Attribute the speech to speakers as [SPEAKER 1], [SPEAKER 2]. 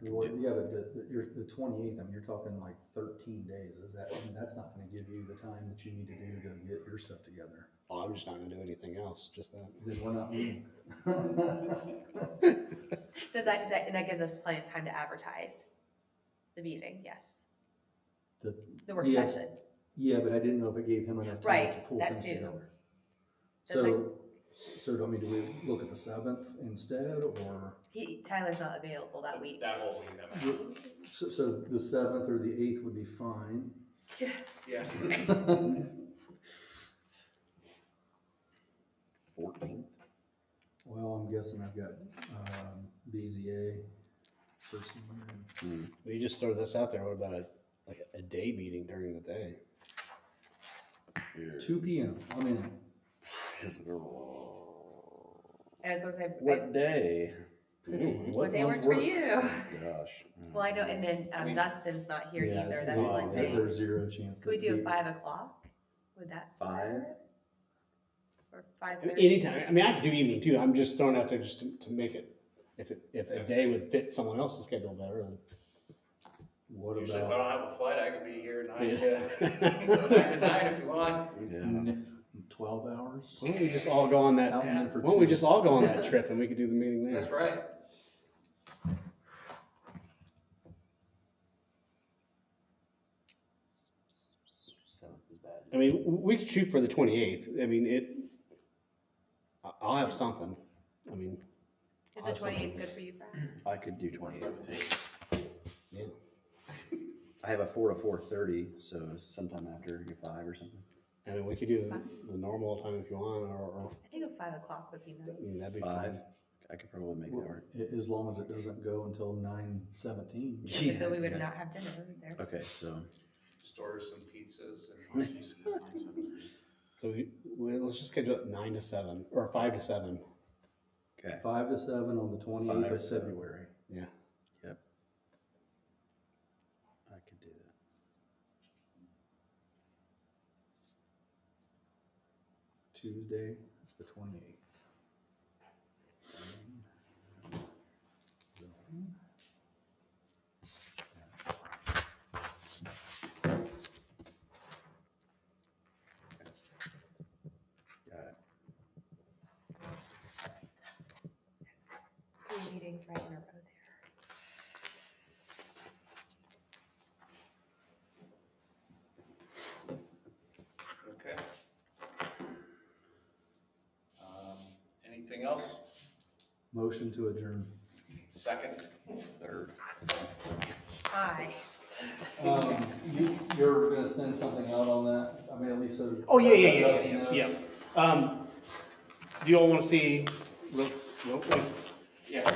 [SPEAKER 1] can
[SPEAKER 2] Well,
[SPEAKER 1] do.
[SPEAKER 2] yeah, but the, the, you're, the twenty-eighth, I mean, you're talking like thirteen days, is that, I mean, that's not gonna give you the time that you need to do to get your stuff together.
[SPEAKER 3] Oh, I'm just not gonna do anything else, just that.
[SPEAKER 2] Then we're not meeting.
[SPEAKER 4] Does that, that, and that gives us plenty of time to advertise the meeting, yes,
[SPEAKER 2] The-
[SPEAKER 4] the work
[SPEAKER 2] Yeah.
[SPEAKER 4] session.
[SPEAKER 2] Yeah, but I didn't know if it gave him enough time to
[SPEAKER 4] Right,
[SPEAKER 2] pull
[SPEAKER 4] that
[SPEAKER 2] things
[SPEAKER 4] too.
[SPEAKER 2] together.
[SPEAKER 4] That's like-
[SPEAKER 2] So, so, I mean, do we look at the seventh instead, or,
[SPEAKER 4] He, Tyler's not available that week.
[SPEAKER 1] That whole week, that might.
[SPEAKER 2] so, so the seventh or the eighth would be fine?
[SPEAKER 1] Yeah.
[SPEAKER 3] Fourteenth?
[SPEAKER 2] Well, I'm guessing I've got, um, BZA personally.
[SPEAKER 3] We just throw this out there, what about a, like, a day meeting during the day?
[SPEAKER 2] Two P M, I'm in.
[SPEAKER 4] And so I was gonna say, I-
[SPEAKER 5] What day?
[SPEAKER 1] Mm-hmm.
[SPEAKER 3] Mm.
[SPEAKER 4] what day
[SPEAKER 5] ones
[SPEAKER 4] works for
[SPEAKER 5] work?
[SPEAKER 4] you?
[SPEAKER 5] Oh, Gosh.
[SPEAKER 4] Well, I know, and then
[SPEAKER 1] I
[SPEAKER 4] um,
[SPEAKER 1] mean-
[SPEAKER 4] Dustin's not here
[SPEAKER 3] Yeah,
[SPEAKER 4] either, that's
[SPEAKER 3] yeah,
[SPEAKER 4] like,
[SPEAKER 3] yeah.
[SPEAKER 4] could
[SPEAKER 2] There's zero chance.
[SPEAKER 4] we
[SPEAKER 2] that
[SPEAKER 4] do
[SPEAKER 2] he-
[SPEAKER 4] five o'clock? Would that?
[SPEAKER 5] Five?
[SPEAKER 4] Or five
[SPEAKER 3] I mean,
[SPEAKER 4] thirty?
[SPEAKER 3] Anytime, I mean, I could do evening too, I'm just throwing out there just to, to make it, if it, if a day would fit someone else's schedule better, then.
[SPEAKER 2] What
[SPEAKER 1] Usually if I
[SPEAKER 2] about
[SPEAKER 1] don't have a flight, I could be here nine
[SPEAKER 3] Yeah.
[SPEAKER 1] to, nine to nine if you want.
[SPEAKER 5] Yeah.
[SPEAKER 2] n- twelve hours?
[SPEAKER 3] Why don't we just all go on that,
[SPEAKER 2] Out and in for
[SPEAKER 3] why don't we
[SPEAKER 2] two.
[SPEAKER 3] just all go on that trip and we could do the meeting
[SPEAKER 1] That's
[SPEAKER 3] there?
[SPEAKER 1] right.
[SPEAKER 3] I mean, w- we could shoot for the twenty-eighth, I mean, it, I- I'll have something, I mean,
[SPEAKER 4] Is
[SPEAKER 3] I'll
[SPEAKER 4] the
[SPEAKER 3] have something.
[SPEAKER 4] twenty-eighth good for you, Brad?
[SPEAKER 5] I could do twenty-eight.
[SPEAKER 3] yeah.
[SPEAKER 5] I have a four to four thirty, so sometime after your five or something.
[SPEAKER 3] I mean, we could do the- the normal time if you want, or, or,
[SPEAKER 4] I think a five o'clock would be
[SPEAKER 3] I mean,
[SPEAKER 4] nice.
[SPEAKER 3] Mm, that'd be
[SPEAKER 5] Five,
[SPEAKER 3] fine.
[SPEAKER 5] I could probably make that work.
[SPEAKER 2] A- As long as it doesn't go until nine seventeen.
[SPEAKER 4] Because then we would
[SPEAKER 5] Yeah.
[SPEAKER 4] not have dinner either.
[SPEAKER 5] Okay, so
[SPEAKER 1] Just order some pizzas and.
[SPEAKER 3] So we, we- let's just schedule it nine to seven, or five to seven,
[SPEAKER 5] okay,
[SPEAKER 2] Five to seven on the twenty-eighth
[SPEAKER 5] Five
[SPEAKER 2] of
[SPEAKER 5] to seven.
[SPEAKER 2] February.
[SPEAKER 3] yeah.
[SPEAKER 5] I could do that.
[SPEAKER 2] Tuesday, the twenty-eighth.
[SPEAKER 5] Got it.
[SPEAKER 4] Three meetings right in a row there.
[SPEAKER 1] Okay. Um, Anything else?
[SPEAKER 2] Motion to adjourn.
[SPEAKER 1] Second?
[SPEAKER 5] Third.
[SPEAKER 4] Aye.
[SPEAKER 2] Um, you, you're gonna send something out on that, I mean, at least so.
[SPEAKER 3] Oh, yeah, yeah, yeah, yeah, yeah, yeah. Um, do you all wanna see, look, look,
[SPEAKER 1] Yeah.